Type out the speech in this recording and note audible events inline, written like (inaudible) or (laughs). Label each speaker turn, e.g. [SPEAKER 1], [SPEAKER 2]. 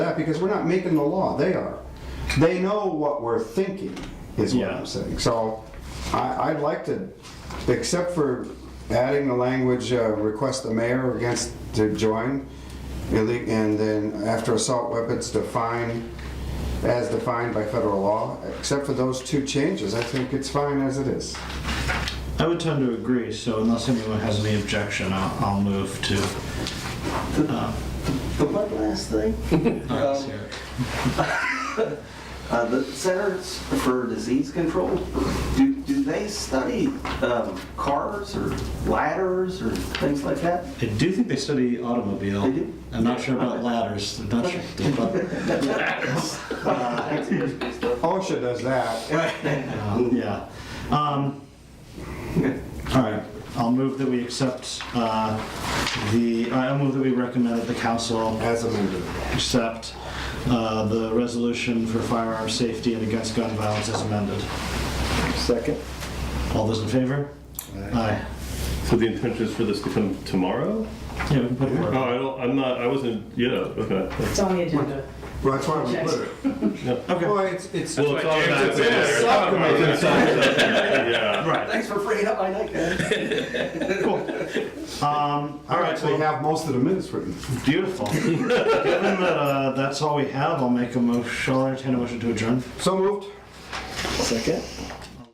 [SPEAKER 1] that because we're not making the law, they are. They know what we're thinking, is what
[SPEAKER 2] Yeah.
[SPEAKER 1] I'm saying. So I, I'd like to, except for adding the language, uh, request the mayor against, to join, ille- and then after assault weapons defined, as defined by federal law, except for those two changes, I think it's fine as it is.
[SPEAKER 2] I would tend to agree, so unless anyone has any objection, I'll, I'll move to.
[SPEAKER 3] The one last (laughs) thing,
[SPEAKER 2] Nice,
[SPEAKER 3] um,
[SPEAKER 2] yeah.
[SPEAKER 3] uh, the Centers for Disease Control, do, do they study um, cars or ladders or things like that?
[SPEAKER 2] I do think they study automobile.
[SPEAKER 3] They do?
[SPEAKER 2] I'm not sure about ladders, I'm not sure, but,
[SPEAKER 1] OSHA does that.
[SPEAKER 2] uh, yeah. Um, All right, I'll move that we accept uh, the, I'll move that we recommend that the council
[SPEAKER 1] As amended.
[SPEAKER 2] accept uh, the resolution for firearm safety and against gun violence as amended.
[SPEAKER 4] Second.
[SPEAKER 2] All those in favor? Aye.
[SPEAKER 5] So the intention is for this to come tomorrow?
[SPEAKER 2] Yeah, we can put it
[SPEAKER 5] Oh,
[SPEAKER 2] forward.
[SPEAKER 5] I don't, I'm not, I wasn't, yeah, okay.
[SPEAKER 6] It's on the agenda.
[SPEAKER 1] Well, that's why we put it.
[SPEAKER 2] Okay,
[SPEAKER 1] Well, it's, it's.
[SPEAKER 5] Well, it's all about Yeah.
[SPEAKER 2] right.
[SPEAKER 3] Thanks for freeing up my night, guys.
[SPEAKER 2] Um, All
[SPEAKER 1] I
[SPEAKER 2] right,
[SPEAKER 1] actually
[SPEAKER 2] well,
[SPEAKER 1] have most of the minutes written.
[SPEAKER 2] beautiful. Given that uh, that's all we have, I'll make a motion, I'll entertain a motion to adjourn.
[SPEAKER 1] So moved.
[SPEAKER 4] Second.